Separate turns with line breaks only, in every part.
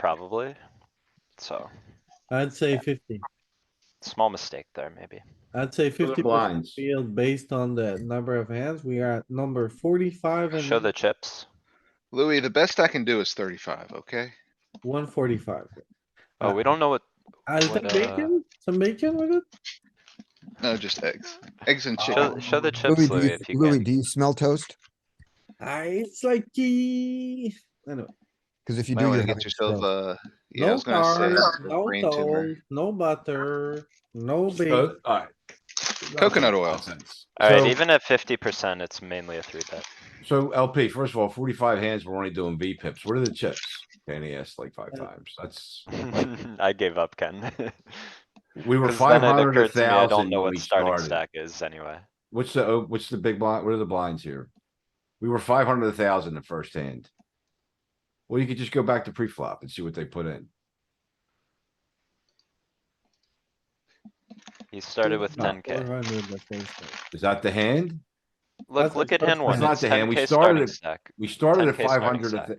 probably. So,
I'd say fifty.
small mistake there, maybe.
I'd say
For the
fifty percent
blinds.
field based on the number of hands. We are at number forty-five
Show
and
the chips.
Louis, the best I can do is thirty-five, okay?
one forty-five.
Oh,
Uh,
we don't know what,
I
What,
think
uh,
bacon, some bacon with it?
No, just eggs, eggs and
show,
chicken.
show the chips,
Louis, do
Louis,
you,
if you
Louis,
can.
do you smell toast?
I, it's like, eh, anyway.
Cause if you
Might
do,
wanna
you're
get yourself a, Uh, yeah, I
No
was gonna say.
carbs,
a
no
brain tumor.
toll, no butter, no
Oh,
bacon.
alright.
Coconut oil.
Nonsense.
Alright,
So-
even at fifty percent, it's mainly a three bet.
So LP, first of all, forty-five hands, we're only doing V pips. What are the chips? Danny asked like five times. That's,
I gave up, Ken.
we were
'Cause then
five
it
hundred or
occurred to me I don't
thousand
know
when
what
we
starting
started.
stack is anyway.
What's the, oh, what's the big blind? What are the blinds here? We were five hundred to thousand the first hand. Well, you could just go back to pre-flop and see what they put in.
He started with ten K.
400 the first time.
Is that the hand?
Look,
That's-
look at
that's
hand
not-
one,
that's
it's
not the hand.
ten
We
K
started
starting
at-
stack.
We started at
10K
five
starting
hundred.
stack.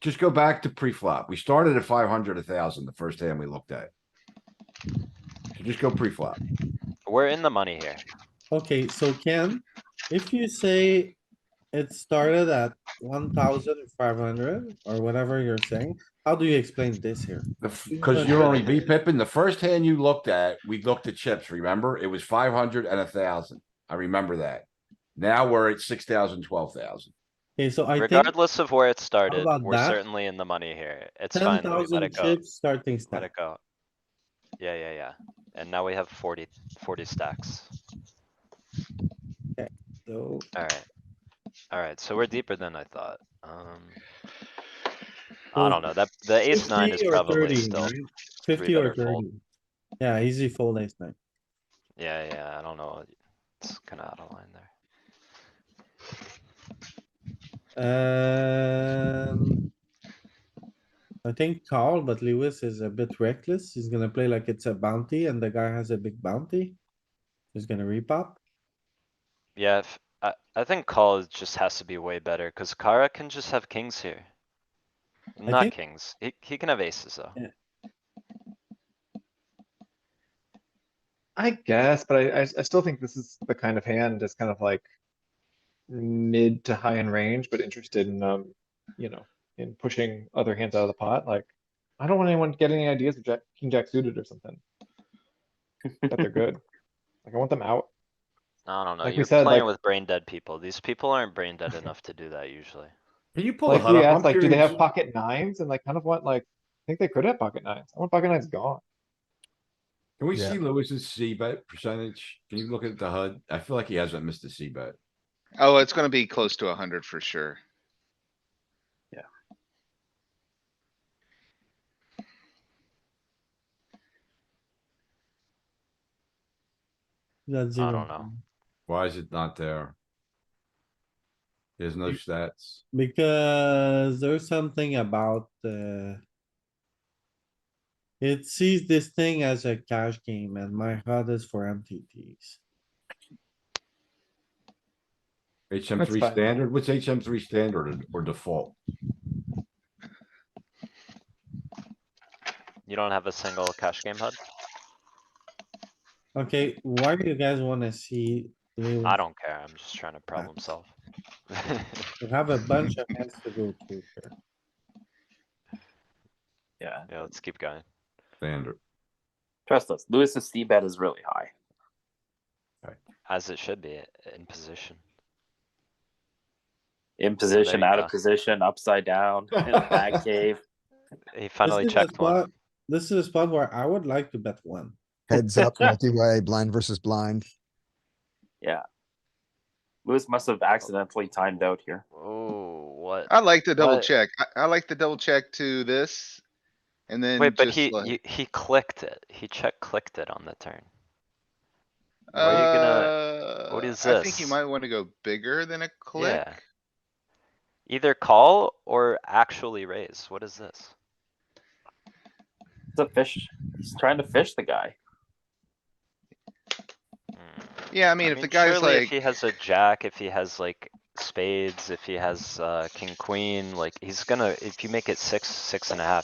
Just go back to pre-flop. We started at five hundred, a thousand, the first hand we looked at. So Just go pre-flop.
We're in the money here.
Okay, so Ken, if you say it started at one thousand five hundred or whatever you're saying, how do you explain this here?
Because you're only V pipping. The first hand you looked at, we looked at chips, remember? It was five hundred and a thousand. I remember that. Now we're at six thousand, twelve thousand.
Okay, so I think
Regardless of where it started,
about
we're
that?
certainly in the money here. It's
ten
fine, Louis, let
thousand
it go.
chips starting
Let
stack.
it go. Yeah, yeah, yeah. And now we have 40 40 stacks.
So
Alright. Alright, so we're deeper than I thought. Um. I don't know, that, the ace nine is
50 or
probably
30,
still,
right? Fifty or
better fold.
thirty. Yeah, easy fold ace nine.
yeah, yeah, I don't know. It's kinda out of line there.
Um. I think call, but Lewis is a bit reckless. He's gonna play like it's a bounty and the guy has a big bounty. He's gonna repop.
Yeah, if, I, I think call is- just has to be way better, cuz Kara can just have kings here. Not
think-
kings, he, he can have aces though.
I guess, but I, I, s- I still think this is the kind of hand that's kind of like mid to high in range, but interested in, um, you know, in pushing other hands out of the pot, like, I don't want anyone to get any ideas of jack, king jack suited or something. That they're good. Like, I want them out.
I don't know,
Like we
you're
said,
playing
like-
with brain dead people. These people aren't brain dead enough to do that usually.
Can you pull the
Like,
HUD
we
up? I'm
asked, like, do they have
curious.
pocket nines? And like, kind of want, like, I think they could have pocket nines. I want pocket nines gone.
Can we
Yeah.
see Lewis's C bet percentage? Can you look at the HUD? I feel like he hasn't missed a C bet.
Oh, it's gonna be close to hundred for sure.
That's
I
zero.
don't know.
Why is it not there? There's no stats.
Because there's something about, uh. It sees this thing as a cash game and my HUD is for MTTs.
HM
That's
three
fine.
standard? What's HM three standard or default?
You don't have a single cash game HUD?
Okay, why do you guys wanna see? Lewis?
I don't care, I'm just trying to problem solve.
We have a bunch of hands to go through here.
Yeah,
Yeah, let's keep going.
Standard.
trust us. Lewis's C bet is really high.
As it should be in position.
In position,
you
out
go.
of position, upside down, in a bag cave.
He finally
This is a
checked one.
spot- This is a spot where I would like to bet one.
heads up, multi-way, blind versus blind.
Lewis must have accidentally timed out here.
Oh, what?
I like to double
But-
check. I, I like to double check to this. And then
Wait, but
just
he,
like,
you- he clicked it. He check clicked it on the turn. why are you
uh,
what is
I think you
this?
might wanna go bigger than a click.
Yeah. Either call or actually raise. What is this?
It's a fish. He's trying to fish the guy.
Hmm.
Yeah, I mean, if the guy's
surely If
like,
he has a jack, if he has like spades, if he has, uh, king, queen, like, he's gonna, if you make it six, six and a half,